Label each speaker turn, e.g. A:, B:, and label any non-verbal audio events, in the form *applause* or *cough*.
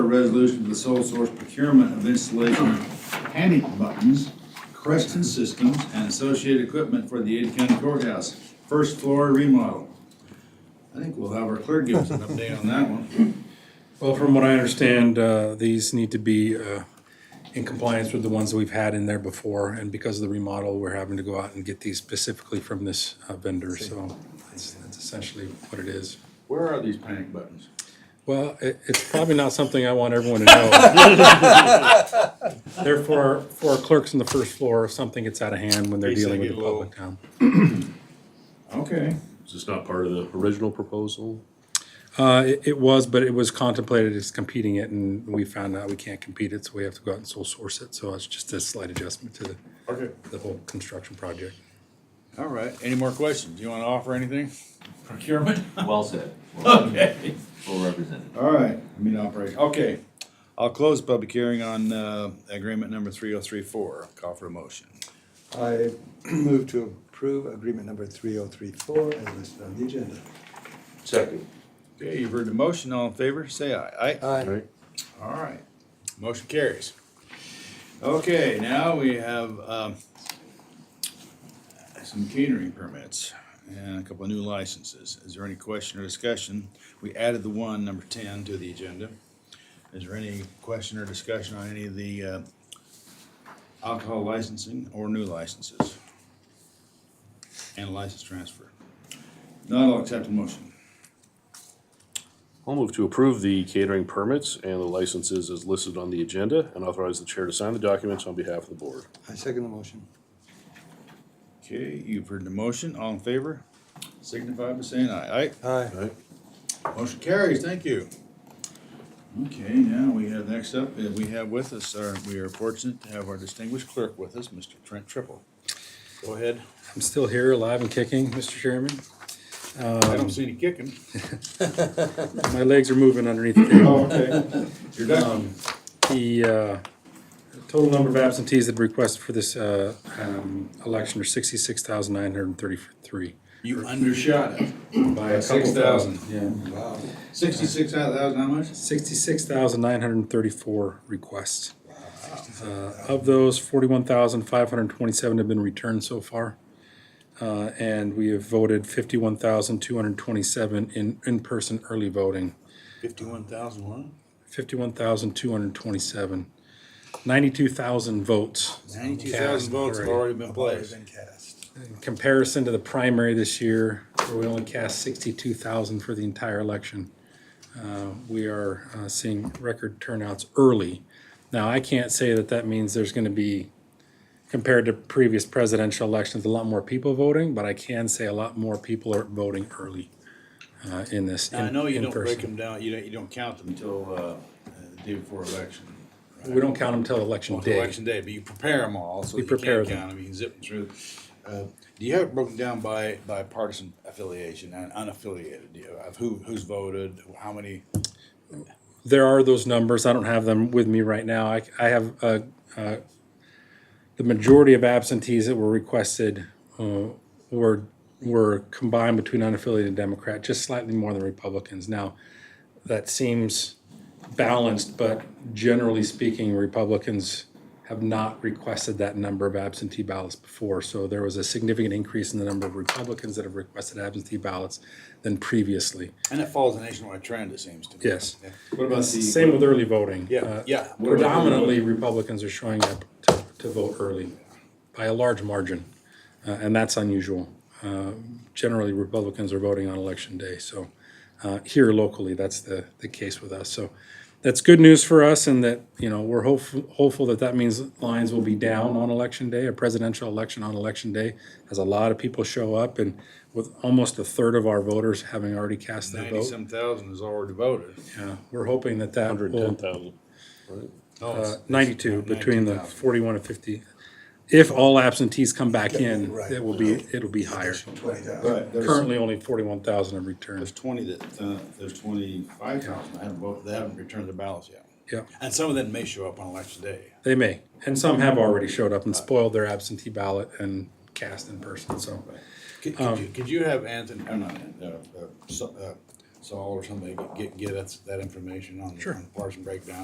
A: A resolution to the sole source procurement of installation of panic buttons, Creston Systems, and associated equipment for the Ada County Courthouse, first floor remodel. I think we'll have our clerk give us an update on that one.
B: Well, from what I understand, uh, these need to be uh, in compliance with the ones that we've had in there before. And because of the remodel, we're having to go out and get these specifically from this uh, vendor. So that's that's essentially what it is.
A: Where are these panic buttons?
B: Well, it, it's probably not something I want everyone to know.
C: *laughs*
B: Therefore, for clerks on the first floor, if something gets out of hand when they're
C: Case they
B: dealing with the
C: get low.
B: public. um,
A: Okay,
C: Is this not part of the original proposal?
B: Uh, it, it was, but it was contemplated as competing it and we found out we can't compete it, so we have to go out and sole source it. So it's just a slight adjustment to the, the whole construction project.
A: all right. Any more questions? You wanna offer anything? Procurement?
D: Well said. Okay. Well represented.
A: All right, I mean operation, okay. I'll close public hearing on, uh, agreement number three oh three four. Call for a motion.
E: I move to approve agreement number 3034 as listed on the agenda.
C: Second.
A: Okay, you've heard the motion. All in favor, say aye. Aye.
C: Right.
A: All right, motion carries. Okay, now we have, um, some catering permits and a couple of new licenses. Is there any question or discussion? We added the one, number ten, to the agenda. Is there any question or discussion on any of the, uh, alcohol licensing or new licenses? And license transfer? Not all accept the motion.
C: I'll move to approve the catering permits and the licenses as listed on the agenda and authorize the chair to sign the documents on behalf of the board.
E: I second the motion.
A: Okay, you've heard the motion, all in favor, signify by saying aye.
E: Aye.
A: Aye, motion carries, thank you. Okay, now we have, next up, uh, we have with us, our we are fortunate to have our distinguished clerk with us, Mr. Trent Triple. Go ahead,
B: I'm still here, alive and kicking, Mr. Chairman.
A: I don't see any kicking.
B: My legs are moving underneath the table.
A: okay. *laughs* You're done.
B: The uh, total number of absentees that requested for this uh, um, election are sixty-six thousand nine hundred and thirty-three.
A: You undershot it.
B: By a
A: Six
B: couple
A: thousand.
B: thousand, yeah.
E: Wow.
A: Sixty-six thousand, how much?
B: Sixty-six thousand nine hundred and thirty-four requests. Uh, Of those, forty-one thousand five hundred and twenty-seven have been returned so far. Uh, And we have voted fifty-one thousand two hundred and twenty-seven in, in-person early voting,
A: Fifty-one thousand one?
B: fifty-one thousand two hundred and twenty-seven. Ninety-two thousand votes.
A: Ninety-two
B: cast
A: thousand votes have
B: already.
A: already been placed.
E: Been cast.
B: In comparison to the primary this year, where we only cast sixty-two thousand for the entire election, uh, we are uh, seeing record turnouts early. Now, I can't say that that means there's going to be, compared to previous presidential elections, a lot more people voting, but I can say a lot more people are voting early uh, in this.
A: Now, I
B: in-
A: know you
B: in
A: don't break
B: person.
A: them down, you don't, you don't count them until, uh, uh, the day before election.
B: We don't count them till election
A: Well, till
B: day.
A: Election day, but you prepare them all, so
B: We
A: you can't
B: prepare
A: count
B: them.
A: them, you can zip them through. Uh, Do you have it broken down by, by partisan affiliation and unaffiliated, Do you- of who, who's voted, how many?
B: there are those numbers. I don't have them with me right now. I, I have, uh, uh, the majority of absentees that were requested, uh, were, were combined between unaffiliated and Democrat, just slightly more than Republicans. Now, that seems balanced, but generally speaking, Republicans have not requested that number of absentee ballots before. So there was a significant increase in the number of Republicans that have requested absentee ballots than previously.
A: And it follows a nationwide trend, it seems to me.
B: Yes.
A: Yeah.
B: What about Same with early voting.
A: Yeah,
B: Uh,
A: yeah.
B: Predominantly, Republicans are showing up to, to vote early by a large margin, uh, and that's unusual. Uh, Generally, Republicans are voting on election day, so, uh, here locally, that's the, the case with us. So that's good news for us and that, you know, we're hopeful, hopeful that that means lines will be down on election day, a presidential election on election day, as a lot of people show up and with almost a third of our voters having already cast their vote.
A: Ninety-some thousand has already voted.
B: Yeah, we're hoping that that
C: Hundred
B: will
C: and ten thousand.
A: No,
B: uh,
A: Oh, it's-
B: ninety-two, between the
A: 92,000.
B: forty-one and fifty. If all absentees come back in,
E: right.
B: it will be, it'll be higher.
E: 20,000.
A: But there's-
B: Currently, only forty-one thousand have returned.
A: There's twenty that, uh, there's twenty-five thousand that haven't voted, they haven't returned their ballots yet.
B: Yep,
A: And some of them may show up on election day.
B: they may. And some have already showed up and spoiled their absentee ballot and cast in person, so.
A: Could, could you, could you have Anthony, or not, Anthony, uh, uh, so- uh, Saul or somebody get, get us that information on on parts and breakdown.